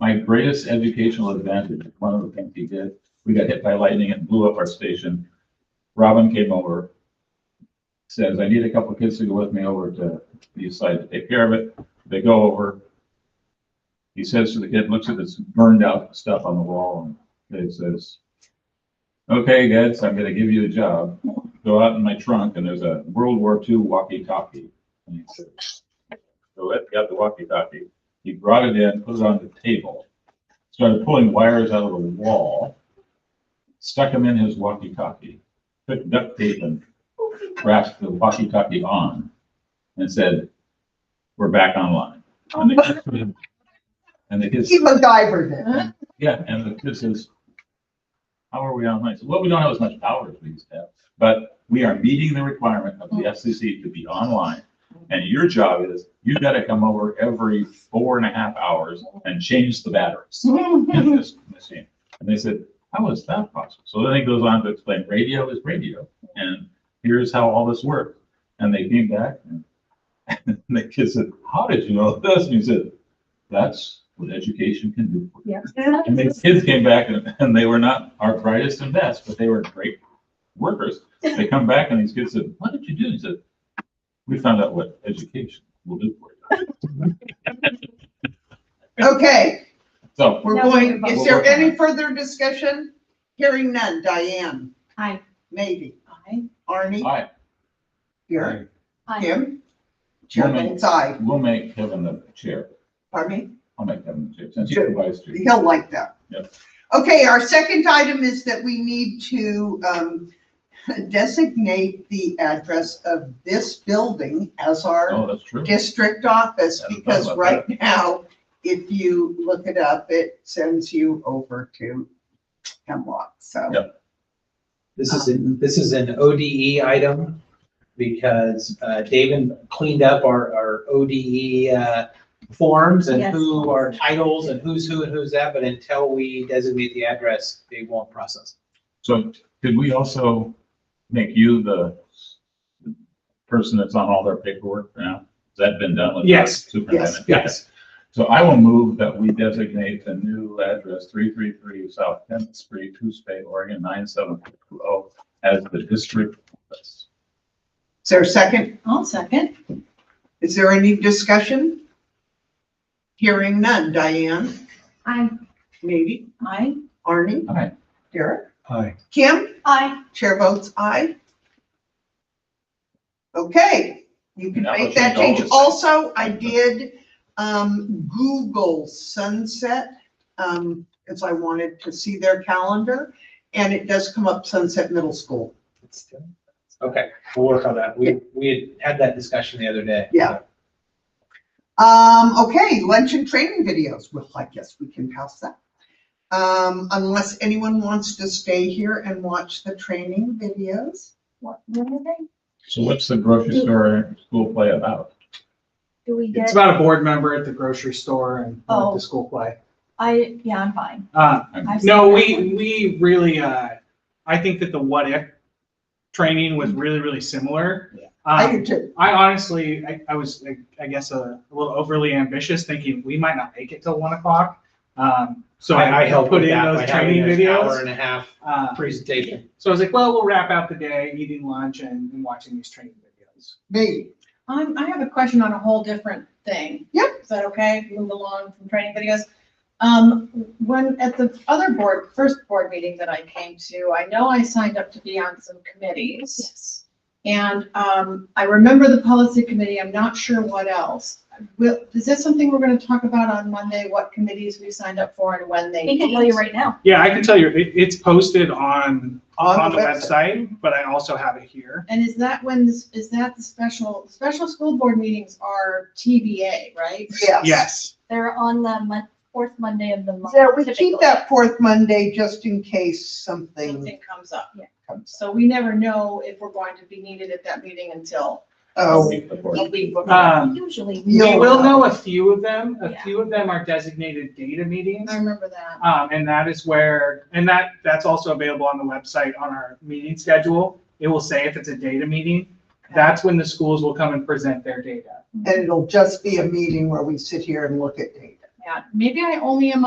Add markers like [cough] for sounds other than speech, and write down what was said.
my greatest educational advantage, one of the things he did, we got hit by lightning and blew up our station. Robin came over, says, I need a couple of kids to go with me over to the east side to take care of it. They go over. He says to the kid, looks at this burned out stuff on the wall and he says, okay, guys, I'm gonna give you a job. Go out in my trunk and there's a World War II walkie-talkie. And he said, So Ed got the walkie-talkie. He brought it in, put it on the table, started pulling wires out of the wall, stuck them in his walkie-talkie, took duct tape and wrapped the walkie-talkie on and said, we're back online. And the- and the kids, He MacGyvered it. yeah, and the kid says, how are we online? I said, Well, we don't have as much power as we used to have, but we are meeting the requirement of the FCC to be online. And your job is, you gotta come over every four and a half hours and change the batteries in this machine. And they said, how is that possible? So then he goes on to explain, radio is radio, and here's how all this works. And they came back, and [laughs] and the kid said, how did you know this? And he said, that's what education can do for you. And the kids came back and, [laughs] and they were not our brightest and best, but they were great workers. They come back and these kids said, what did you do? He said, we found out what education will do for you. Okay, So, we're Now going, we're is there voting. any further discussion? Hearing none. Diane, Aye. maybe. Aye. Arnie, I, here, Aye. Kim. Chair Woman. votes aye. we'll make Kevin the chair. Pardon I'll make Kevin the chair since you're the vice chair. me? He'll like that. Yep. Okay, our second item is that we need to um, [laughs] designate the address of this building as our Oh, that's true. district office, Hadn't thought because about right now, if you look it up, it sends you over to Hemlock, so. Yep. This is, an- this is an ODE item because uh, David cleaned up our, our ODE uh, forms and Yes. who are titles and who's who and who's that, but until we designate the address, they won't process. So could we also make you the person that's on all their paperwork for now? Has that been done with? the Yes. Superintendent? Yes. So I will move that we designate the new address, three three three South Tenth Street, Tuesday, Oregon, nine seven two oh, as the district. office. Is there a second? I'll second. Is there any discussion? Hearing none. Diane, Aye. maybe, Aye. Arnie, All right, Derek, Hi. Kim, Aye. chair votes aye. Okay, you can Now let's make that change all change. those. Also, I did, um, Google Sunset, um, because I wanted to see their calendar, and it does come up Sunset Middle School. Okay, we'll work on that. We, we had had that discussion the other day. Yeah. Um, okay, lunch and training videos. Well, I guess we can pass that. Um, unless anyone wants to stay here and watch the training videos. What, what are they? so what's the grocery store school play about? Do we It's get, about a board member at the grocery store and uh, Oh. the school play. I, yeah, I'm fine. Uh, I've seen no, that we, one. we really, uh, I think that the what if training was really, really similar. Yeah. I Um, do too. I honestly, I, I was, like, I guess, a little overly ambitious, thinking we might not make it till one o'clock. Um, so I helped put with in that those by having training an Hour videos. and a half Uh, presentation. so I was like, well, we'll wrap out the day, eating lunch and, and watching these training videos. Me. Um, I have a question on a whole different thing. Yep. Is that okay? Move along from training videos. Um, when, at the other board, first board meeting that I came to, I know I signed up to be on some committees. Yes. And, um, I remember the policy committee, I'm not sure what else. Will, is this something we're gonna talk about on Monday, what committees we signed up for and when they? He can tell meet? you right now. Yeah, I can tell you, it, it's posted on, on the website. website, but I also have it here. And is that when, this is that the special, special school board meetings are TBA, right? [laughs] Yes. Yes. They're on the mon- fourth Monday of the month. Yeah, we keep typically. that fourth Monday just in case something Something comes up. comes. So we never know if we're going to be needed at that meeting until Oh, Week before. a week before. Um, Usually. Yeah, we You'll will know a few of them. A Yeah. few of them are designated data meetings. I remember that. Um, and that is where, and that, that's also available on the website on our meeting schedule. It will say if it's a data meeting, that's when the schools will come and present their data. and it'll just be a meeting where we sit here and look at data. Yeah, maybe I only am